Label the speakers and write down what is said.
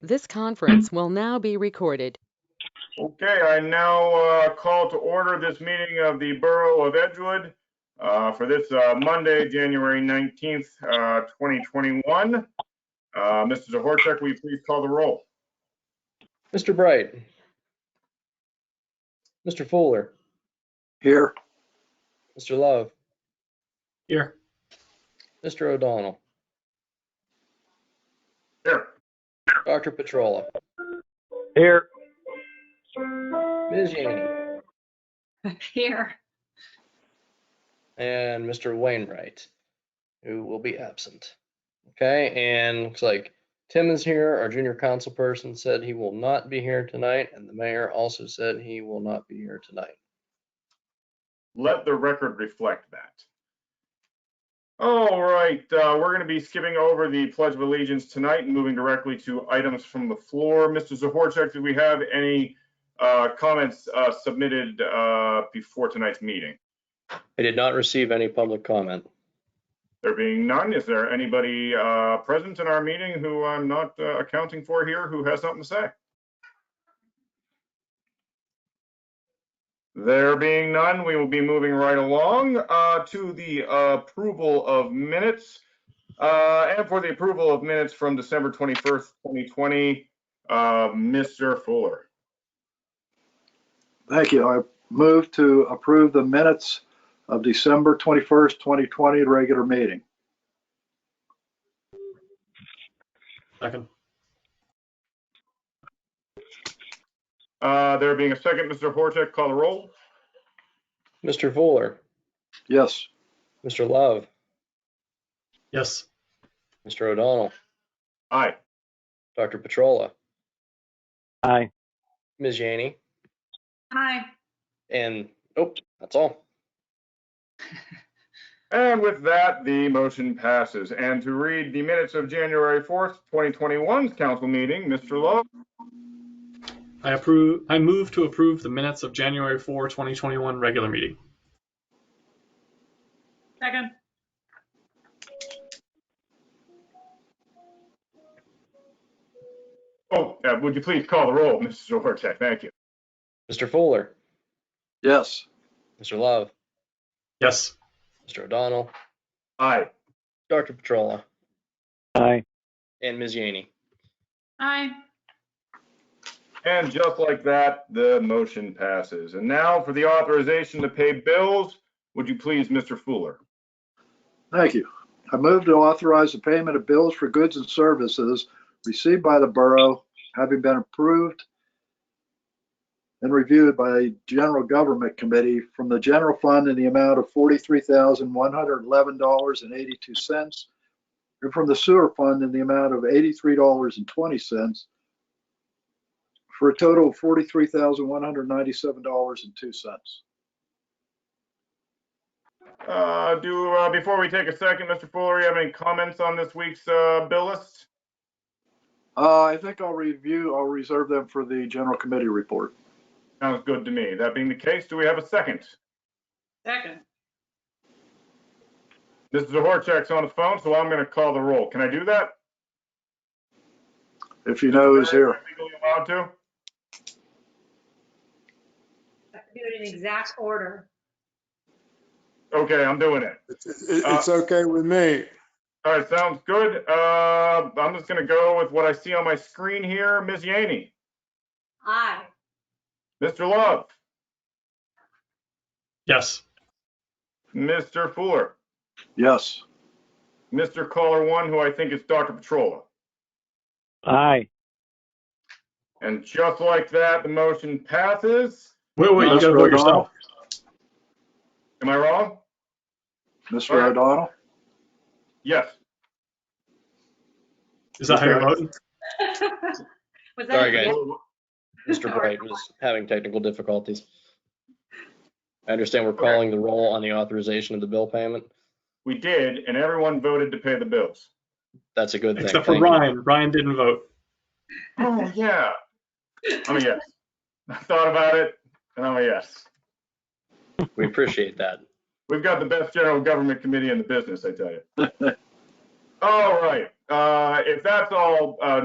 Speaker 1: This conference will now be recorded.
Speaker 2: Okay, I now uh, call to order this meeting of the Borough of Edgewood uh, for this uh, Monday, January 19th, uh, 2021. Uh, Mr. Zohorecheck, will you please call the roll?
Speaker 3: Mr. Bright. Mr. Fuller,
Speaker 4: Here.
Speaker 3: Mr. Love,
Speaker 4: Here.
Speaker 3: Mr. O'Donnell,
Speaker 2: Here.
Speaker 3: Dr. Petrola,
Speaker 4: Here.
Speaker 3: Ms. Janey,
Speaker 5: Here.
Speaker 3: and Mr. Wainwright, who will be absent. Okay, and looks like Tim is here. Our junior council person said he will not be here tonight, and the mayor also said he will not be here tonight.
Speaker 2: Let the record reflect that. All right, uh, we're going to be skipping over the Pledge of Allegiance tonight and moving directly to items from the floor. Mr. Zohorecheck, do we have any uh, comments uh, submitted uh, before tonight's meeting?
Speaker 3: I did not receive any public comment.
Speaker 2: There being none, is there anybody uh, present in our meeting who I'm not uh, accounting for here who has something to say? There being none, we will be moving right along uh, to the approval of minutes. Uh, And for the approval of minutes from December 21st, 2020, uh, Mr. Fuller.
Speaker 4: Thank you. I move to approve the minutes of December 21st, 2020, regular meeting.
Speaker 6: Second.
Speaker 2: Uh, There being a second, Mr. Horchak, call the roll.
Speaker 3: Mr. Fuller,
Speaker 4: Yes.
Speaker 3: Mr. Love,
Speaker 6: Yes.
Speaker 3: Mr. O'Donnell,
Speaker 2: Aye.
Speaker 3: Dr. Petrola,
Speaker 4: Aye.
Speaker 3: Ms. Janey,
Speaker 5: Aye.
Speaker 3: and, oh, that's all.
Speaker 2: And with that, the motion passes. And to read the minutes of January 4th, 2021's council meeting, Mr. Love,
Speaker 6: I approve, I move to approve the minutes of January 4, 2021 regular meeting.
Speaker 5: Second.
Speaker 2: oh, uh, would you please call the roll, Mr. Zohorecheck? Thank you.
Speaker 3: Mr. Fuller,
Speaker 4: Yes.
Speaker 3: Mr. Love,
Speaker 6: Yes.
Speaker 3: Mr. O'Donnell,
Speaker 2: Aye.
Speaker 3: Dr. Petrola,
Speaker 4: Aye.
Speaker 3: and Ms. Janey.
Speaker 5: Aye.
Speaker 2: And just like that, the motion passes. And now for the authorization to pay bills, would you please, Mr. Fuller?
Speaker 4: Thank you. I move to authorize the payment of bills for goods and services received by the borough, having been approved and reviewed by a general government committee from the general fund in the amount of $43,111.82 and from the sewer fund in the amount of $83.20 for a total of $43,197.02.
Speaker 2: Uh, do, uh, before we take a second, Mr. Fuller, you have any comments on this week's, uh, bill list?
Speaker 4: Uh, I think I'll review, I'll reserve them for the general committee report.
Speaker 2: Sounds good to me. That being the case, do we have a second?
Speaker 5: Second.
Speaker 2: Mr. Zohorecheck's on the phone, so I'm gonna call the roll. Can I do that?
Speaker 4: if you know who's here.
Speaker 2: Legally allowed to?
Speaker 5: Do it in exact order.
Speaker 2: Okay, I'm doing it.
Speaker 7: It's- It's it's okay with me.
Speaker 2: All right, sounds good. Uh, I'm just gonna go with what I see on my screen here. Ms. Yaney,
Speaker 5: Aye.
Speaker 2: Mr. Love,
Speaker 6: Yes.
Speaker 2: Mr. Fuller,
Speaker 4: Yes.
Speaker 2: Mr. Caller One, who I think is Dr. Petrola.
Speaker 4: Aye.
Speaker 2: And just like that, the motion passes.
Speaker 6: Wait, wait, you gotta vote yourself.
Speaker 2: Am I wrong?
Speaker 4: Mr. O'Donnell?
Speaker 2: Yes.
Speaker 6: Is that how you're voting?
Speaker 5: Was that?
Speaker 3: Sorry,
Speaker 5: a yes?
Speaker 3: guys. Mr. Bright was having technical difficulties. I understand we're calling the roll on the authorization of the bill payment.
Speaker 2: We did, and everyone voted to pay the bills.
Speaker 3: That's a good thing.
Speaker 6: Except for
Speaker 3: Thank you.
Speaker 6: Ryan. Ryan didn't vote.
Speaker 2: Oh, yeah. I'm a Oh, yes. I thought about it, and I'm a yes.
Speaker 3: We appreciate that.
Speaker 2: We've got the best general government committee in the business, I tell you. All right, uh, if that's all, uh,